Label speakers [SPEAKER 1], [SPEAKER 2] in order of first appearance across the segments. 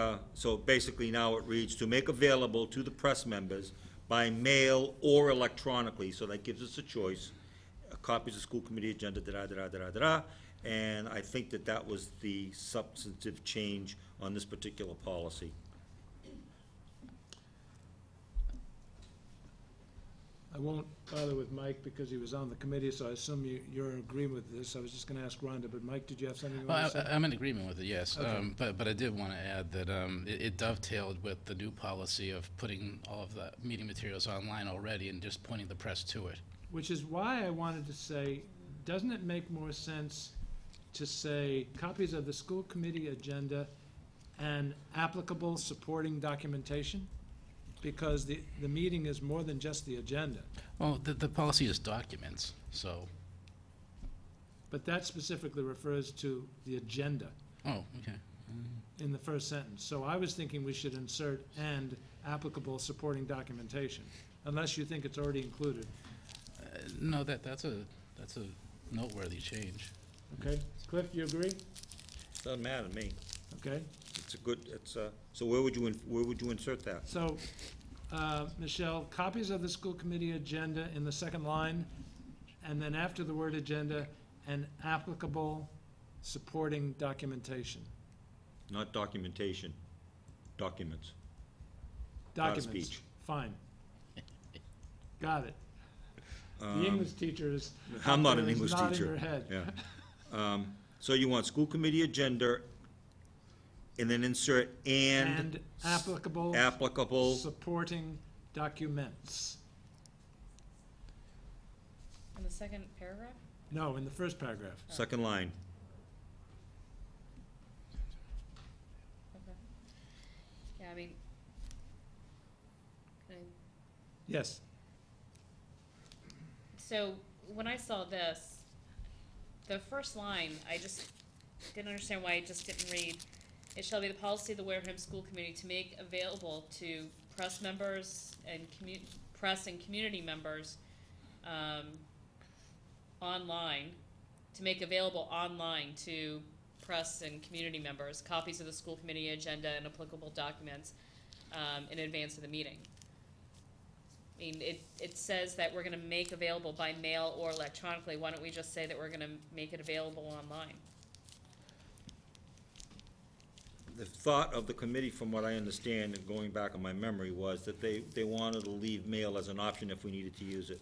[SPEAKER 1] uh, so basically now it reads, "To make available to the press members by mail or electronically," so that gives us a choice, uh, copies of school committee agenda, da-da, da-da, da-da, da-da. And I think that that was the substantive change on this particular policy.
[SPEAKER 2] I won't bother with Mike because he was on the committee, so I assume you, you're in agreement with this. I was just gonna ask Rhonda, but Mike, did you have something you
[SPEAKER 3] Well,
[SPEAKER 2] wanted to
[SPEAKER 3] I-
[SPEAKER 2] say?
[SPEAKER 3] I'm in agreement with it, yes.
[SPEAKER 2] Okay.
[SPEAKER 3] Um, But, but I did want to add that um, it it dovetailed with the new policy of putting all of the meeting materials online already and just pointing the press to it.
[SPEAKER 2] Which is why I wanted to say, doesn't it make more sense to say copies of the school committee agenda and applicable supporting documentation? Because the, the meeting is more than just the agenda.
[SPEAKER 3] Well, the, the policy is documents, so,
[SPEAKER 2] But that specifically refers to the agenda
[SPEAKER 3] oh, okay.
[SPEAKER 2] in the first sentence. So I was thinking we should insert and applicable supporting documentation, unless you think it's already included,
[SPEAKER 3] Uh, No, that, that's a, that's a noteworthy change.
[SPEAKER 2] okay? Cliff, you agree?
[SPEAKER 1] Doesn't matter to me.
[SPEAKER 2] Okay,
[SPEAKER 1] It's a good, it's a, so where would you, in- where would you insert that?
[SPEAKER 2] so, uh, Michelle, copies of the school committee agenda in the second line, and then after the word agenda, and applicable supporting documentation.
[SPEAKER 1] Not documentation, documents. Not a
[SPEAKER 2] Documents,
[SPEAKER 1] speech.
[SPEAKER 2] fine. Got it. The
[SPEAKER 1] Um,
[SPEAKER 2] English teacher is.
[SPEAKER 1] I'm not an
[SPEAKER 2] is
[SPEAKER 1] English
[SPEAKER 2] nodding
[SPEAKER 1] teacher.
[SPEAKER 2] her head.
[SPEAKER 1] Yeah. Um, So you want school committee agenda, and then insert and
[SPEAKER 2] And applicable
[SPEAKER 1] applicable,
[SPEAKER 2] supporting documents.
[SPEAKER 4] In the second paragraph?
[SPEAKER 2] No, in the first paragraph.
[SPEAKER 1] second line.
[SPEAKER 4] Okay. Yeah, I mean, can I
[SPEAKER 2] Yes.
[SPEAKER 4] So when I saw this, the first line, I just didn't understand why I just didn't read. It shall be the policy of the Wareham School Committee to make available to press members and commu- press and community members, um, online, to make available online to press and community members, copies of the school committee agenda and applicable documents, um, in advance of the meeting. I mean, it, it says that we're gonna make available by mail or electronically, why don't we just say that we're gonna make it available online?
[SPEAKER 1] The thought of the committee, from what I understand, and going back on my memory, was that they, they wanted to leave mail as an option if we needed to use it.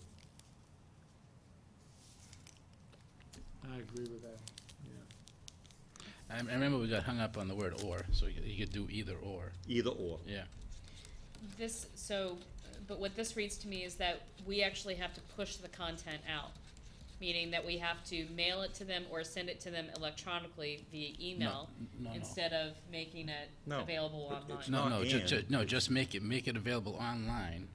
[SPEAKER 2] I agree with that.
[SPEAKER 3] I I remember we got hung up on the word or, so you you could do either or,
[SPEAKER 1] Either or.
[SPEAKER 3] yeah.
[SPEAKER 4] This, so, but what this reads to me is that we actually have to push the content out, meaning that we have to mail it to them or send it to them electronically via email,
[SPEAKER 3] No, no.
[SPEAKER 4] instead of making it
[SPEAKER 1] No.
[SPEAKER 4] available
[SPEAKER 1] It- it's
[SPEAKER 4] online.
[SPEAKER 1] not-
[SPEAKER 3] No, no, ju-
[SPEAKER 1] and.
[SPEAKER 3] ju- no, just make it, make it available online,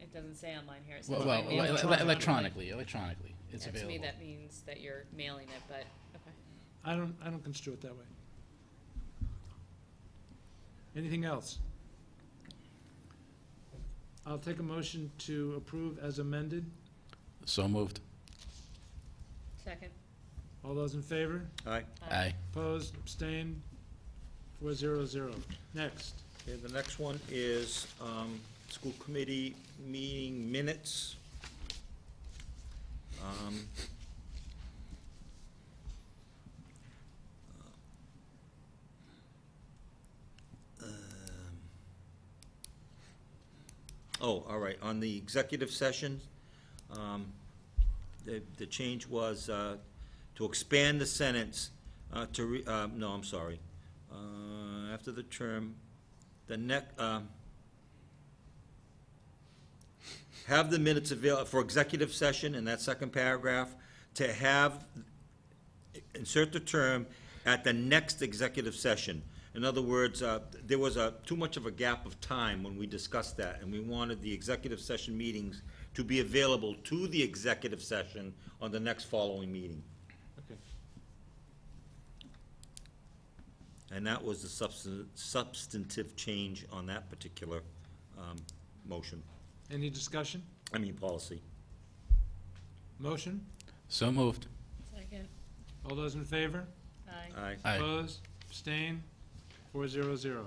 [SPEAKER 4] It doesn't say online here, it says
[SPEAKER 3] well,
[SPEAKER 4] by
[SPEAKER 3] well,
[SPEAKER 4] mail or
[SPEAKER 3] ele- ele-
[SPEAKER 4] electronically.
[SPEAKER 3] electronically, electronically, it's
[SPEAKER 4] Yeah, To me,
[SPEAKER 3] available.
[SPEAKER 4] that means that you're mailing it, but, okay.
[SPEAKER 2] I don't, I don't construe it that way. Anything else? I'll take a motion to approve as amended.
[SPEAKER 3] So moved.
[SPEAKER 4] Second?
[SPEAKER 2] All those in favor?
[SPEAKER 1] Aye.
[SPEAKER 3] Aye.
[SPEAKER 2] Opposed? Abstained? Four zero zero. Next.
[SPEAKER 1] Okay, the next one is, um, school committee meeting minutes. Um, um, Oh, all right, on the executive session, um, the, the change was, uh, to expand the sentence, uh, to re, uh, no, I'm sorry. Uh, after the term, the neck, um, have the minutes avail, for executive session in that second paragraph, to have, insert the term, at the next executive session. In other words, uh, there was a, too much of a gap of time when we discussed that, and we wanted the executive session meetings to be available to the executive session on the next following meeting.
[SPEAKER 2] Okay.
[SPEAKER 1] And that was the substan- substantive change on that particular um, motion,
[SPEAKER 2] Any discussion?
[SPEAKER 1] I mean, policy.
[SPEAKER 2] Motion?
[SPEAKER 3] So moved.
[SPEAKER 4] Second.
[SPEAKER 2] All those in favor?
[SPEAKER 4] Aye.
[SPEAKER 1] Aye.
[SPEAKER 3] Aye.
[SPEAKER 2] Opposed? Abstained? four zero zero.